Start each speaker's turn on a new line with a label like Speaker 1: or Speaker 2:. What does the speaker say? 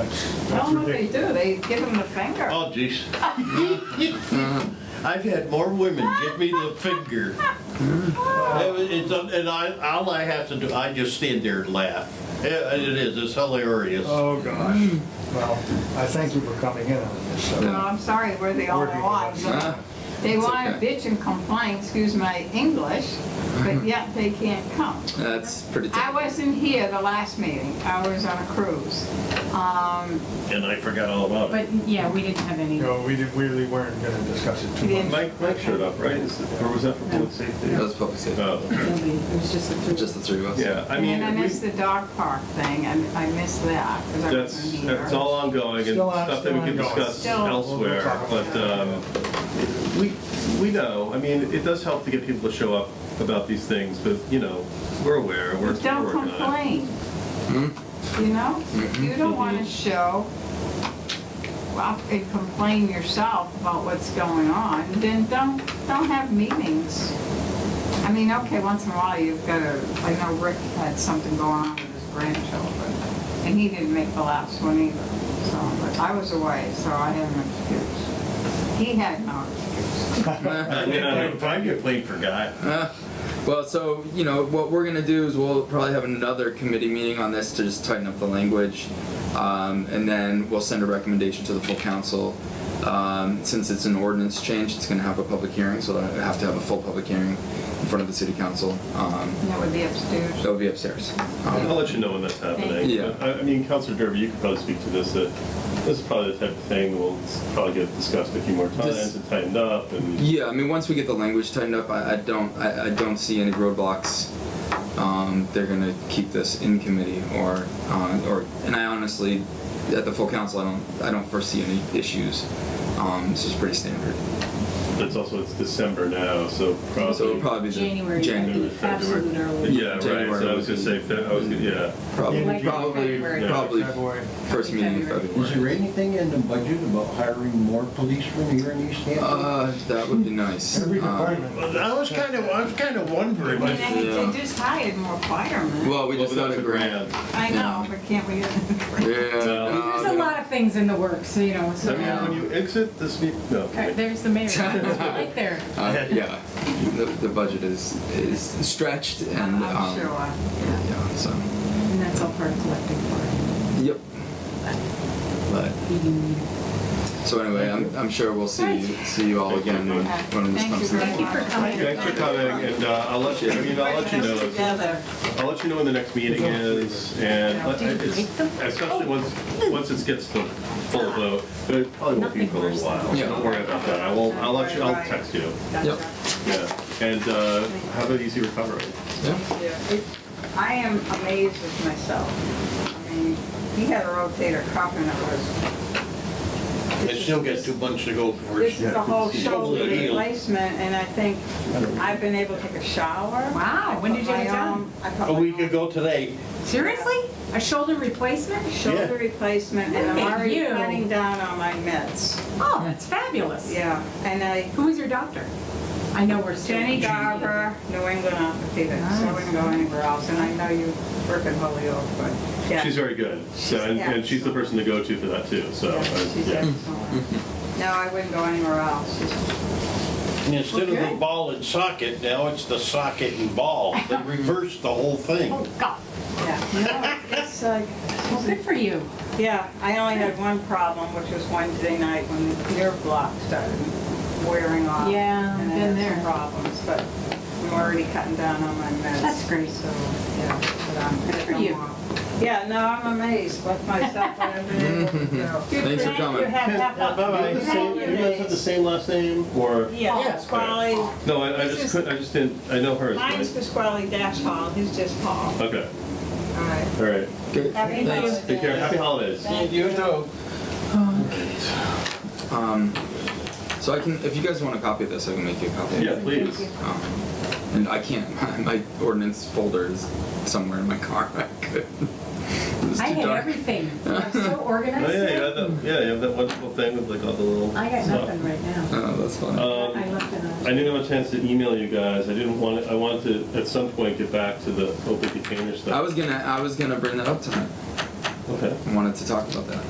Speaker 1: That's
Speaker 2: I
Speaker 1: that's
Speaker 2: don't know what they
Speaker 3: Oh,
Speaker 1: ridiculous.
Speaker 2: do, they give them the finger.
Speaker 1: Oh, jeez. I've had more women give me the finger. It was- it's a- And I, all I have to do, I just stand there and laugh. It it is, it's hilarious.
Speaker 3: Oh, gosh. Well, I thank you for coming in on this. so.
Speaker 2: No, I'm sorry, we're the only
Speaker 3: Working.
Speaker 2: ones.
Speaker 4: Huh?
Speaker 2: They
Speaker 4: It's
Speaker 2: want to
Speaker 4: okay. Uh-huh.
Speaker 2: bitch and complain, excuse my English, but yet they can't come.
Speaker 4: That's pretty
Speaker 2: I
Speaker 4: typical.
Speaker 2: wasn't here the last meeting, I was on a cruise. Um,
Speaker 1: And I forgot all about it.
Speaker 5: But, yeah, we didn't have any.
Speaker 3: You know, we didn't- we really weren't going to discuss it too
Speaker 2: Yeah.
Speaker 3: much.
Speaker 6: Mike, Mike showed up, right? Is that- Or was that for public safety?
Speaker 4: That was public safety.
Speaker 6: Oh,
Speaker 5: nobody. It was just the three.
Speaker 4: Just the three of us.
Speaker 6: yeah, I
Speaker 2: And
Speaker 6: mean,
Speaker 2: then I
Speaker 6: we-
Speaker 2: missed the dog park thing, I I missed that, because I wasn't
Speaker 6: that's,
Speaker 2: here.
Speaker 6: that's all ongoing and
Speaker 3: Still on-
Speaker 6: stuff that we
Speaker 3: still
Speaker 6: can
Speaker 3: ongoing.
Speaker 6: discuss
Speaker 2: Still-
Speaker 6: elsewhere,
Speaker 3: We'll talk about
Speaker 6: but, um, we, we know, I mean, it does help to get people to show up about these things, but, you know, we're aware, we're
Speaker 2: But Don't
Speaker 6: we're working on it.
Speaker 2: complain. You know, you don't want to show up and complain yourself about what's going on, then don't, don't have meetings. I mean, okay, once in a while you've got to, I know Rick had something going on with his grandchildren, and he didn't make the last one either, so, but I was away, so I had an excuse. He had no excuse.
Speaker 1: I mean, I complained for God.
Speaker 4: Uh, Well, so, you know, what we're gonna do is we'll probably have another committee meeting on this to just tighten up the language. Um, and then we'll send a recommendation to the full council. Um, since it's an ordinance change, it's gonna have a public hearing, so it'll have to have a full public hearing in front of the city council. Um,
Speaker 2: And That would be upstairs.
Speaker 4: that'll be upstairs. Um,
Speaker 6: I'll let you know when that's happening.
Speaker 4: you.
Speaker 6: But, I, I mean, Counselor Derby, you could probably speak to this, that this is probably the type of thing we'll probably get discussed a few more times
Speaker 4: This-
Speaker 6: and tightened up and.
Speaker 4: Yeah, I mean, once we get the language tightened up, I, I don't, I, I don't see any roadblocks. Um, they're gonna keep this in committee or, uh, or, and I honestly, at the full council, I don't, I don't foresee any issues. Um, this is pretty standard.
Speaker 6: But it's also, it's December now, so probably.
Speaker 4: So it'll probably be the.
Speaker 5: January,
Speaker 4: January.
Speaker 6: January,
Speaker 5: the absolute early.
Speaker 6: Yeah, right, so I was gonna say, fe- I was, gonna- yeah.
Speaker 4: Probably,
Speaker 3: Like
Speaker 4: probably,
Speaker 5: February.
Speaker 4: probably
Speaker 3: February.
Speaker 4: first meeting in
Speaker 5: February.
Speaker 1: Is
Speaker 4: February.
Speaker 1: there anything in the budget about hiring more policemen here in East Hampton?
Speaker 4: Uh, that would be nice.
Speaker 3: Every
Speaker 4: Um,
Speaker 3: department.
Speaker 1: I was kind of, I was kind of wondering.
Speaker 2: And they-
Speaker 4: Yeah.
Speaker 2: they just hired more firemen.
Speaker 4: Well, we
Speaker 6: Well,
Speaker 4: just
Speaker 6: but that
Speaker 4: got
Speaker 6: was
Speaker 4: a grant.
Speaker 2: I know, but can't we get the
Speaker 4: Yeah.
Speaker 2: grant?
Speaker 4: no,
Speaker 5: There's
Speaker 4: no.
Speaker 5: a lot of things in the works, so, you know,
Speaker 6: I
Speaker 5: so.
Speaker 6: mean, when you exit this meet, no.
Speaker 5: Okay, There's the mayor, He's right there.
Speaker 4: Uh, yeah, the, the budget is, is stretched and,
Speaker 2: I'm
Speaker 4: um,
Speaker 2: sure. uh, yeah.
Speaker 4: yeah, so,
Speaker 5: And that's all part of collecting for
Speaker 4: yep. But,
Speaker 5: the union.
Speaker 4: so anyway, I'm, I'm sure we'll see, you- see you all again when, when this
Speaker 2: Thank
Speaker 4: comes
Speaker 2: you very
Speaker 4: to.
Speaker 2: much.
Speaker 6: Thank you, thanks for coming, and uh, I'll let you, I mean, I'll let you know, if-
Speaker 2: Together.
Speaker 6: I'll let you know when the next meeting is, and let- it's- especially once, once it gets to full vote, but it probably won't be for a little while, so don't worry about that, I will, I'll let you, I'll text you,
Speaker 4: Yep.
Speaker 6: yeah, and uh, have an easy recovery.
Speaker 4: Yeah.
Speaker 2: I am amazed with myself. I mean, he had a rotator cuff and it was,
Speaker 1: I still got two months to go for
Speaker 2: this is
Speaker 1: it.
Speaker 2: a whole
Speaker 1: It's
Speaker 2: shoulder
Speaker 1: totally healed.
Speaker 2: replacement and I think I've been able to take a shower.
Speaker 5: Wow, when did you get it done?
Speaker 1: A week ago today,
Speaker 5: Seriously? A shoulder replacement?
Speaker 2: Shoulder replacement and I'm
Speaker 5: Look at
Speaker 2: already
Speaker 5: you.
Speaker 2: cutting down on my meds.
Speaker 5: Oh, that's fabulous.
Speaker 2: Yeah, and I
Speaker 5: Who was your doctor? I know we're still.
Speaker 2: Jenny Garber, New England Orthopedics, so I wouldn't go anywhere else, and I know you work in Holyoke, but, yeah.
Speaker 6: She's very good, so, and, and she's the person to go to for that too, so,
Speaker 2: Yeah,
Speaker 6: uh,
Speaker 2: she's
Speaker 6: yeah.
Speaker 2: excellent. No, I wouldn't go anywhere else, She's-
Speaker 1: and instead of
Speaker 5: Okay.
Speaker 1: the ball and socket, now it's the socket and ball. They reversed the whole thing.
Speaker 5: Oh, God.
Speaker 2: yeah. No, It's like,
Speaker 5: Well, good for you.
Speaker 2: yeah, I only had one problem, which was Wednesday night when the nerve block started wearing off.
Speaker 5: Yeah,
Speaker 2: and I
Speaker 5: been
Speaker 2: had some
Speaker 5: there.
Speaker 2: Problems, but I'm already cutting down on my meds.
Speaker 5: That's great.
Speaker 2: So, yeah, but I'm.
Speaker 5: Good for you.
Speaker 2: Yeah, no, I'm amazed with myself, what I've been able to do.
Speaker 4: Thanks for coming.
Speaker 6: Bye-bye. Same- You guys have the same last name, or?
Speaker 2: Yeah, Pasquale,
Speaker 6: No, I, I just couldn't, I just didn't, I know hers,
Speaker 2: mine's
Speaker 6: but,
Speaker 2: Pasquale Dash Hall, he's just Paul.
Speaker 6: okay,
Speaker 2: All right.
Speaker 6: all right.
Speaker 4: Good.
Speaker 2: Happy
Speaker 4: Thanks.
Speaker 2: Thursday.
Speaker 6: Take care, happy holidays.
Speaker 1: You know.
Speaker 4: Um, so I can, if you guys want a copy of this, I can make you a copy.
Speaker 6: Yeah, please.
Speaker 4: Um, And I can't, my, my ordinance folder is somewhere in my car. I could. It was
Speaker 5: I
Speaker 4: too
Speaker 5: had
Speaker 4: dark.
Speaker 5: everything. I'm so
Speaker 6: Oh,
Speaker 5: organized.
Speaker 6: yeah, you
Speaker 5: now.
Speaker 6: have that, yeah, you have that wonderful thing with like all the little
Speaker 5: I got
Speaker 6: stuff.
Speaker 5: nothing right now.
Speaker 4: Oh, that's funny.
Speaker 5: I
Speaker 6: Um,
Speaker 5: left it on.
Speaker 6: I didn't have a chance to email you guys. I didn't want, I wanted to, at some point, get back to the open container
Speaker 4: I
Speaker 6: stuff.
Speaker 4: was gonna, I was gonna bring that up tonight.
Speaker 6: Okay.
Speaker 4: wanted to talk about that.